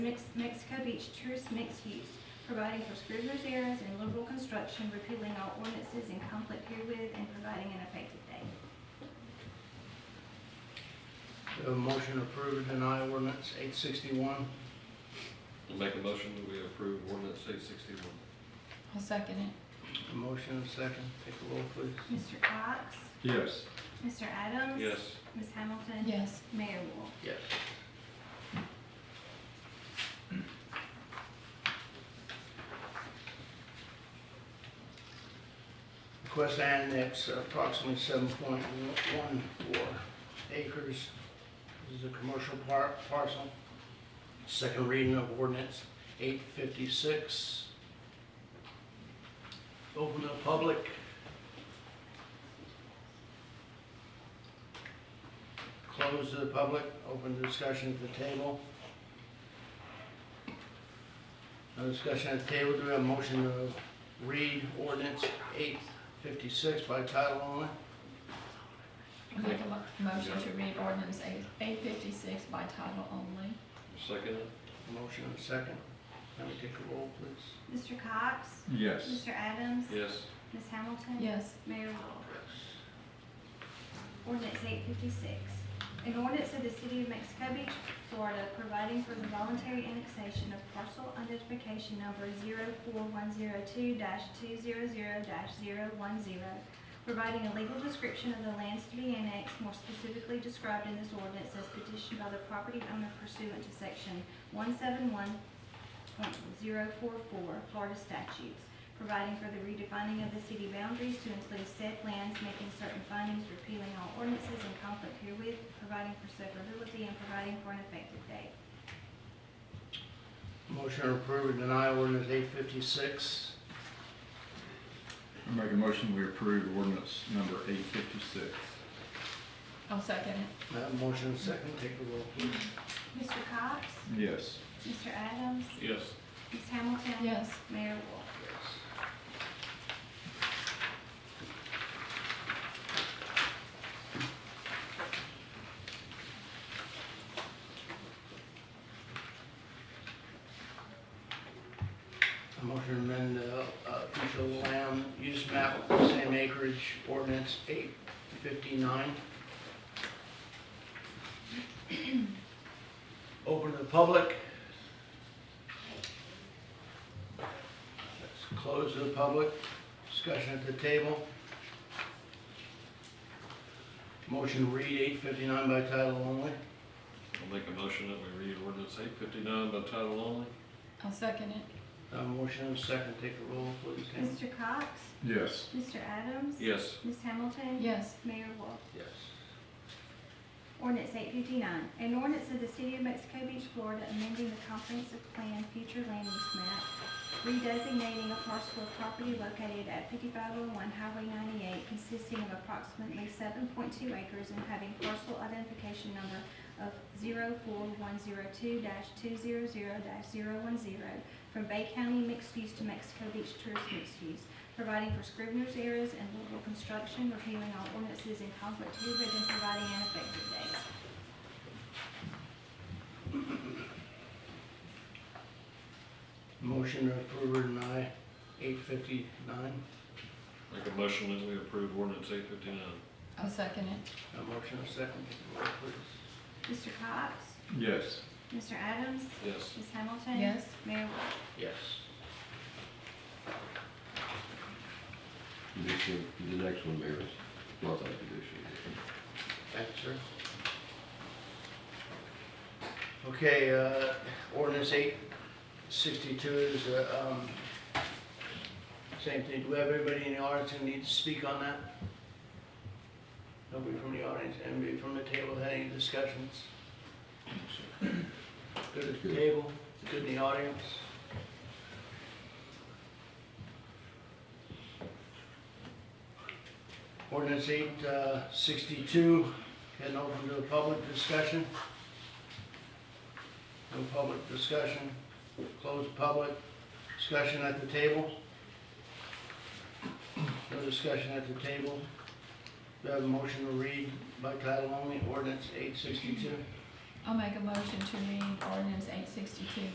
Mex- Mexico Beach tourist mixed use, providing for scrivener's errors and liberal construction, repealing all ordinances in conflict herewith, and providing an effective date. We have a motion to approve or deny ordinance eight sixty-one. I'll make a motion that we approve ordinance eight sixty-one. I'll second it. A motion and a second. Take a roll, please. Mr. Cox? Yes. Mr. Adams? Yes. Ms. Hamilton? Yes. Mayor Wolf? Yes. Request to annex approximately seven point one four acres. This is a commercial par- parcel. Second reading of ordinance eight fifty-six. Open to the public. Close to the public, open to discussion at the table. No discussion at the table, do we have a motion to read ordinance eight fifty-six by title only? I make a mo- motion to read ordinance eight, eight fifty-six by title only. Second? Motion and a second. Let me take a roll, please. Mr. Cox? Yes. Mr. Adams? Yes. Ms. Hamilton? Yes. Mayor Wolf? Ordinance eight fifty-six. An ordinance of the City of Mexico Beach, Florida, providing for the voluntary annexation of parcel identification number 4102 two zero zero 10 providing a legal description of the lands to be annexed, more specifically described in this ordinance as petitioned by the property owner pursuant to section one seven one point zero four four Florida statutes, providing for the redefining of the city boundaries to include said lands, making certain findings, repealing all ordinances in conflict herewith, providing for severability, and providing for an effective date. Motion to approve or deny ordinance eight fifty-six. I make a motion, we approve ordinance number eight fifty-six. I'll second it. motion and a second, take a roll, please. Mr. Cox? Yes. Mr. Adams? Yes. Ms. Hamilton? Yes. Mayor Wolf? A motion to amend the uh, official land use map, same acreage, ordinance eight fifty-nine. Open to the public. Let's close to the public, discussion at the table. Motion to read eight fifty-nine by title only. I'll make a motion that we read ordinance eight fifty-nine by title only. I'll second it. Uh, Motion and second, take a roll, please. Tammy. Mr. Cox? Yes. Mr. Adams? Yes. Ms. Hamilton? Yes. Mayor Wolf? Yes. Ordinance eight fifty-nine, an ordinance of the City of Mexico Beach, Florida, amending the comprehensive plan future land use map, redesignating a parcel of property located at fifty-five oh one Highway ninety-eight consisting of approximately seven point two acres and having parcel identification number of 4102 two zero zero 10 from Bay County mixed use to Mexico Beach tourist mixed use, providing for scrivener's errors and liberal construction, repealing all ordinances in conflict herewith, and providing an effective date. Motion to approve or deny eight fifty-nine. Make a motion that we approve ordinance eight fifty-nine. I'll second it. A Uh, motion and a second, take a roll, please. Mr. Cox? Yes. Mr. Adams? Yes. Ms. Hamilton? Yes. Mayor Wolf? Yes. Condition, the next one, Mayor, is multi-condition. Thank you, sir. Okay, uh, ordinance eight sixty-two is, uh, um, same thing. Do we have anybody in the audience who needs to speak on that? Nobody from the audience, anybody from the table had any discussions? Good at the Good. table, good in the audience. Ordinance eight uh, sixty-two, can open to a public discussion. No public discussion, close public, discussion at the table. No discussion at the table. Do I have a motion to read by title only, ordinance eight sixty-two? I'll make a motion to read ordinance eight sixty-two